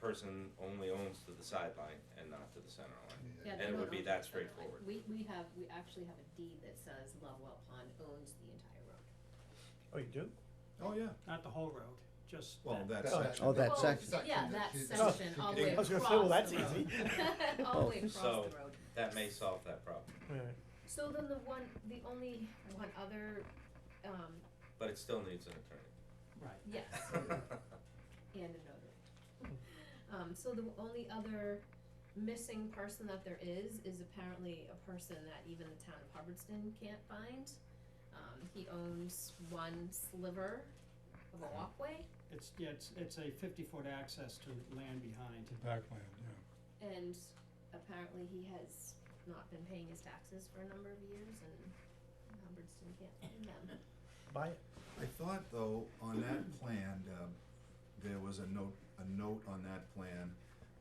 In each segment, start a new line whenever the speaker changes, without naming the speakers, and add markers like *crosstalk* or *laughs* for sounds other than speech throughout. person only owns to the sideline and not to the center line.
Yeah,
And
they
it
don't
would be
own
that
the center line.
straightforward.
We, we have, we actually have a deed that says Lovewell Pond owns the entire road.
Oh, you do?
Oh, yeah,
Not the whole road, just
well,
that.
that
Oh,
section.
oh, that
Well,
section.
Yeah, that section, all the way
Oh, I
across
was
the
gonna
road.
say, well, that's easy.
All the way across the
So-
road. *laughs*
That may solve that problem,
Alright.
So then the one, the only one other, um,
but it still needs an attorney.
Right.
yes, and a notary. Um, so the only other missing person that there is, is apparently a person that even the town of Hubbardston can't find. Um, he owns one sliver of a walkway,
It's, yeah, it's, it's a fifty-foot access to land behind.
Backland, yeah.
and apparently he has not been paying his taxes for a number of years, and Hubbardston can't find them.
Buy it.
I thought though, on that plan, um, there was a note, a note on that plan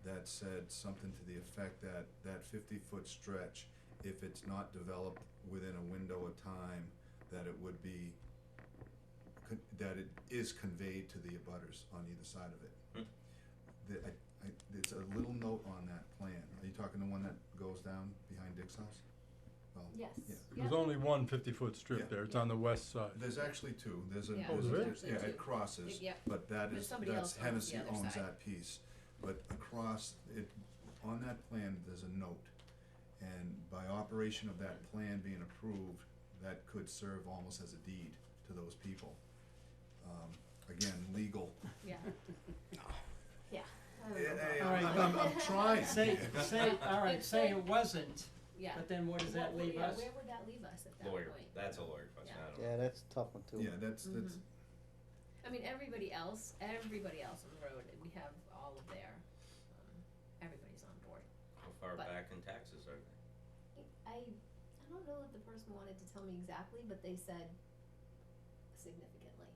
that said something to the effect that, that fifty-foot stretch, if it's not developed within a window of time, that it would be, con- that it is conveyed to the abutters on either side of it. The, I, I, it's a little note on that plan. Are you talking the one that goes down behind Dick's house? Well,
Yes,
Yeah.
yeah,
There's only one fifty-foot
Yeah.
strip there, it's on the west side.
There's actually two, there's a,
Yeah.
Oh,
there's a-
really?
there's- yeah,
There's
it
two.
crosses,
Yep.
but that
But
is,
somebody
that's
else owns
Hennessy
the other
owns
side.
that piece. But across, it, on that plan, there's a note, and by operation of that plan being approved, that could serve almost as a deed to those people. Um, again, legal.
yeah. Yeah, I don't know
Yeah, yeah,
about that.
Alright.
I'm, I'm,
*laughs*
I'm trying.
Say, say, alright, say it wasn't,
Yeah.
but then where does that
What would-
leave
yeah,
us?
Where would that leave us at that point?
Lawyer, that's a lawyer question, I don't know.
Yeah, that's a tough one too.
Yeah, that's,
Mm-hmm.
that's,
I mean, everybody else, everybody else on the road, we have all of their, um, everybody's on board.
How far
But-
back in taxes are they?
I, I don't know if the person wanted to tell me exactly, but they said significantly.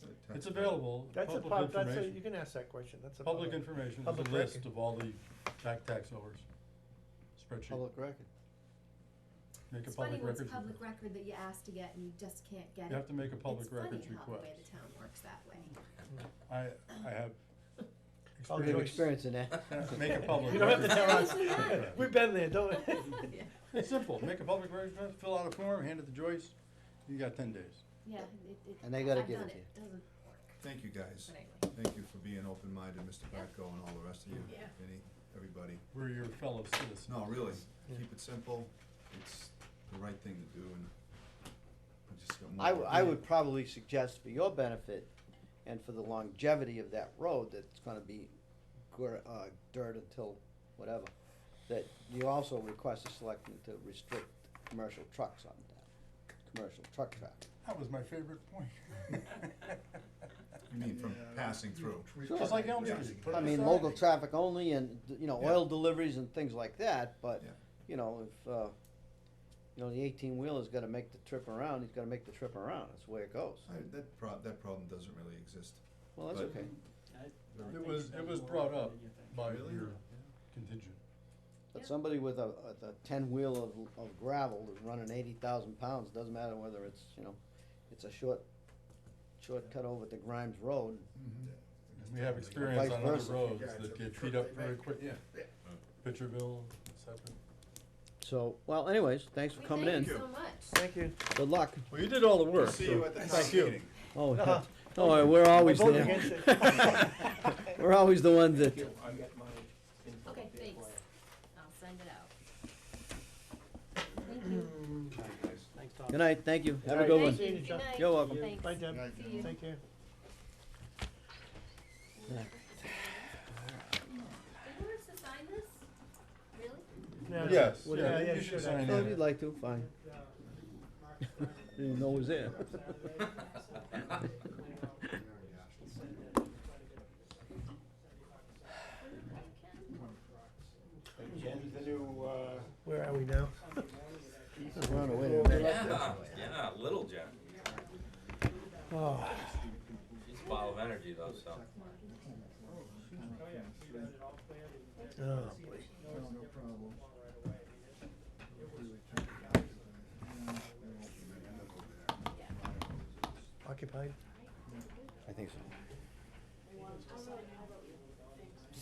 uh,
It's available,
That's a, pub-
public
that's a,
information,
you can ask that question, that's a.
public information, there's
public
a
record.
list of all the back tax owers. Spreadsheet,
Public record.
make a public records.
It's funny when it's public
request.
record that you ask to get and you just can't get
You
it.
have to make a public
It's
records
funny how the
request.
way the town works that
*laughs*
way.
I, I have
I'll
We
give
have
experience, *laughs*
experience in that.
Yeah, make a
*laughs*
public.
You don't have to tell us.
Honestly, yeah.
*laughs* We've been there, don't we?
Yeah,
It's simple, make a public records request, fill out a form, hand it to Joyce, you got ten days.
yeah, it, it.
And they gotta
I've
give
done
it to
It doesn't work,
Thank you, guys.
but anyway.
Thank you for being open-minded, Mr.
Yeah.
Bartko and all the rest of you,
Yeah.
Vinny, everybody.
We're your fellow citizens.
No, really,
Yeah.
keep it simple, it's the right thing to do and I just got more.
I, w- I would probably suggest for your benefit and for the longevity of that road that's gonna be gr- uh, dirt until whatever, that you also request the selectmen to restrict commercial trucks on that, commercial truck traffic.
That was my favorite point.
You mean from
Yeah.
passing through?
Sure.
Just like Elm
Yeah.
Street, put it
I mean,
aside.
local traffic only and, you know,
Yeah.
oil deliveries and things like that, but,
Yeah.
you know, if, uh, you know, the eighteen wheeler's gotta make the trip around, he's gotta make the trip around, that's the way it goes.
I, that prob, that problem doesn't really exist.
Well, that's
But-
okay,
It was, it was brought up by
Really?
your contingent.
Yeah.
but somebody with a, a, a ten wheel of, of gravel that's running eighty thousand pounds, doesn't matter whether it's, you know, it's a short, shortcut over to Grimes Road,
We have experience
Vice
on other
versa.
roads
Yeah, it's
that
a
get
truck
beat up
they
very
make.
quick, yeah.
Yeah.
Pitcherville, et cetera.
so, well, anyways, thanks for
We
coming
thank
in,
you so much.
Thank you.
good luck.
Well, you did all the work,
See you at the
thank
next
you.
meeting.
Oh, *laughs*
Uh-huh.
oh, we're always
vote
there,
against it.
*laughs* we're always the ones that.
Okay, thanks. I'll send it out. Thank you.
Thanks, Tom.
Good night, thank you, have a
Alright,
good
thank
one.
Thank you.
Good
Good night.
You're welcome.
Thanks.
Bye, Deb.
See you.
Take care.
Did we have to sign this? Really?
Yeah.
Yes,
Well,
yeah, yeah,
yeah, you
sure.
should sign
Oh,
in.
if you'd like to, fine, didn't know it was there.
Jen's the new, uh,
Where are we now? *laughs*
Just run away with it.
Yeah, *laughs* yeah, little Jen,
Oh,
she's a ball of energy though, so.
oh.
no problem.
Occupied?
I think so.
I don't know.